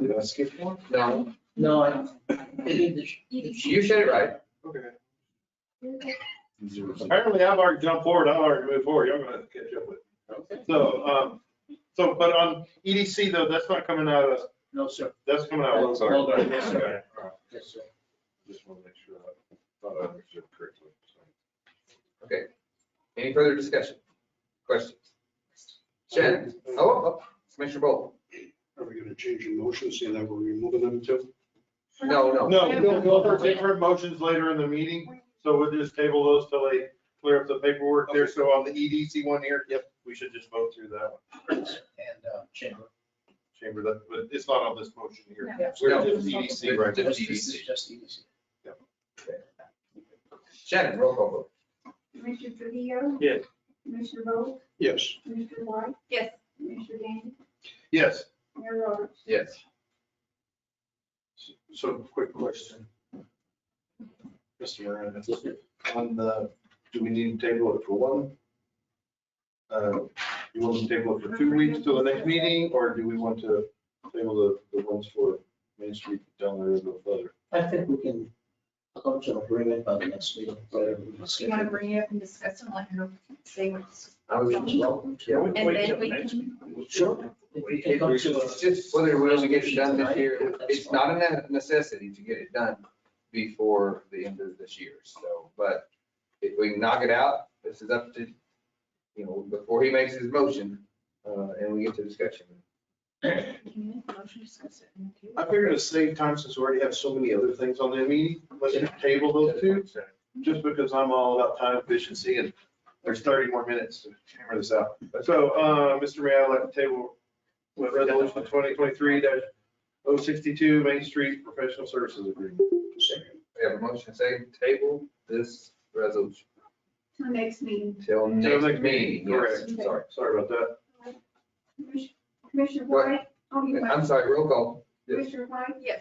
Did I skip one? No, No, I, you said it right. Okay. It's Apparently I've already jumped forward, I've already moved forward, y'all gonna have to catch up with me. So, um, so, but on EDC though, that's not coming out of, no, sir. that's coming out of. That's all right. Yes, sir. Okay. Yes, sir. Just wanna make sure I thought Oh, I understood correctly. Okay. Any further discussion? Questions? Shannon? Oh, Oh, Commissioner Bolt? Are we gonna change your motion, seeing that we're removing them too? No, no. No, we'll, we'll have different motions later in the meeting, so we'll just table those till they clear up the paperwork there. So on the EDC one here, yep, we should just vote through that one. And, uh, chamber. Chamber, that, but it's not on this motion here. Yeah. We're No. just EDC right now. This is just EDC. Shannon, roll call vote. Commissioner Trujillo? Yes. Commissioner Bowe? Yes. Commissioner White? Yes. Commissioner Gandy? Yes. Mayor Roberts? Yes. So, quick question. Mr. Moran, on the, uh, do we need to table it for one? Uh, You want to table it for two weeks till the next meeting, or do we want to table the, the ones for Main Street down there a little further? I think we can come to an agreement by the next meeting. whatever we can You wanna schedule. bring it up and discuss it, let her say what's, I was just wrong. Yeah. and then we can, Sure. If we can come to It's a- just whether we're gonna get it done this year. It's not a necessity to get it done before the end of this year, so, but if we knock it out, this is up to, you know, before he makes his motion, uh, and we get to discussion. can you make a motion to discuss it? in the I figured to save time since we already have so many other things on the meeting, let's table those two, just because I'm all about time efficiency and there's thirty more minutes to hammer this out. So, uh, Mr. Mayor, I'd like to table with resolution twenty twenty-three 62 Main Street Professional Services Agreement. We have a motion saying table this resolution Till next meeting. till Till next next meeting. meeting, Yes, correct. Sorry. Sorry about that. Commissioner- Commissioner What? White? Oh, you I'm might. sorry, roll call. Yes. Commissioner White? Yes.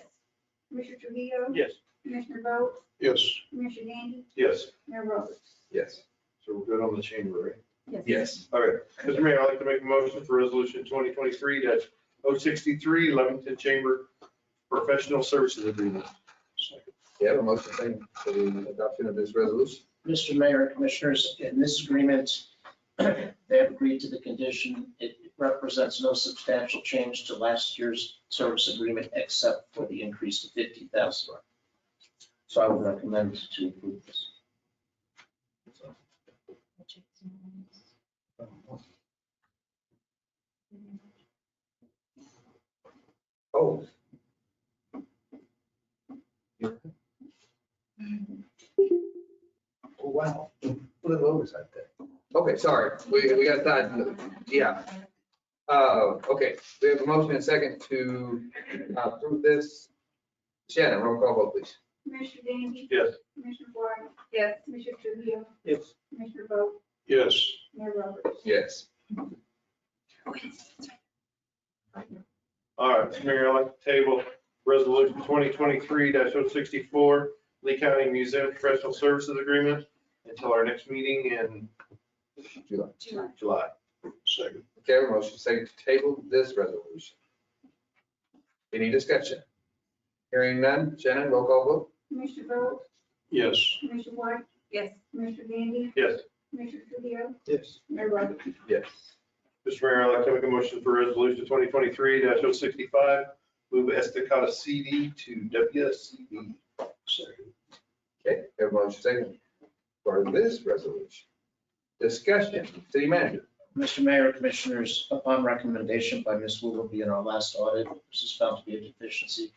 Commissioner Trujillo? Yes. Commissioner Bowe? Yes. Commissioner Gandy? Yes, Mayor Roberts? Yes. So we're good on the chamber, right? Yes. all right. Mr. Mayor, I'd like to make a motion for resolution twenty twenty-three 63 oh sixty-three, Levington Chamber Professional Services Agreement. We have a motion saying for the adoption of this resolution. Mr. Mayor, Commissioners, in this agreement, they have agreed to the condition. It represents no substantial change to last year's service agreement except for the increase to fifty thousand. So I would recommend to approve this. Oh. Oh, Wow, a little oversight there. Okay, sorry, we, we got that, yeah. Uh, okay, we have a motion and second to approve this. Shannon, roll call vote please. Commissioner Gandy? Yes. Commissioner White? Yes. Commissioner Trujillo? Yes. Commissioner Bowe? Yes. Mayor Roberts? Yes. All right, Mr. Mayor, I'd like to table resolution twenty twenty-three 64 Lee County Museum Professional Services Agreement until our next meeting in July. July. July. Second. Okay, a motion second to table this resolution. Any discussion? Hearing none, Shannon, roll call vote. Commissioner Bowe? Yes. Commissioner White? Yes. Commissioner Gandy? Yes, Commissioner Trujillo? Yes. Mayor Roberts? Yes. Mr. Mayor, I'd like to make a motion for resolution twenty twenty-three 65 move Estacada CD to WSCD. Second. Okay, we have a motion second for this resolution. Discussion, city manager. Mr. Mayor, Commissioners, upon recommendation by Ms. Willoughby in our last audit, this is found to be a deficiency.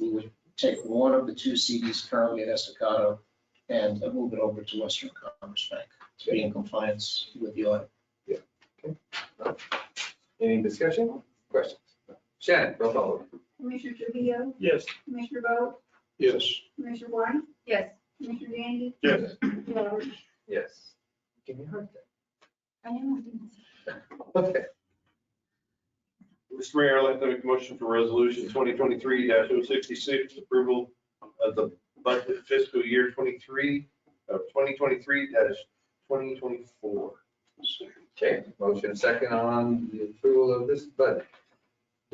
We would take one of the two CDs currently at Estacado and move it over to Western Commerce Bank to be in compliance with the audit. Any discussion, questions? Shannon, roll call vote. Commissioner Trujillo? Yes. Commissioner Bowe? Yes. Commissioner White? Yes. Commissioner Gandy? Yes. Mayor Roberts? Yes. Can you hear that? I am. Okay, Mr. Mayor, I'd like to make a motion for resolution twenty twenty-three 66 approval of the budget fiscal year twenty-three, of twenty twenty-three twenty twenty-four. Second. okay, motion second on the approval of this budget.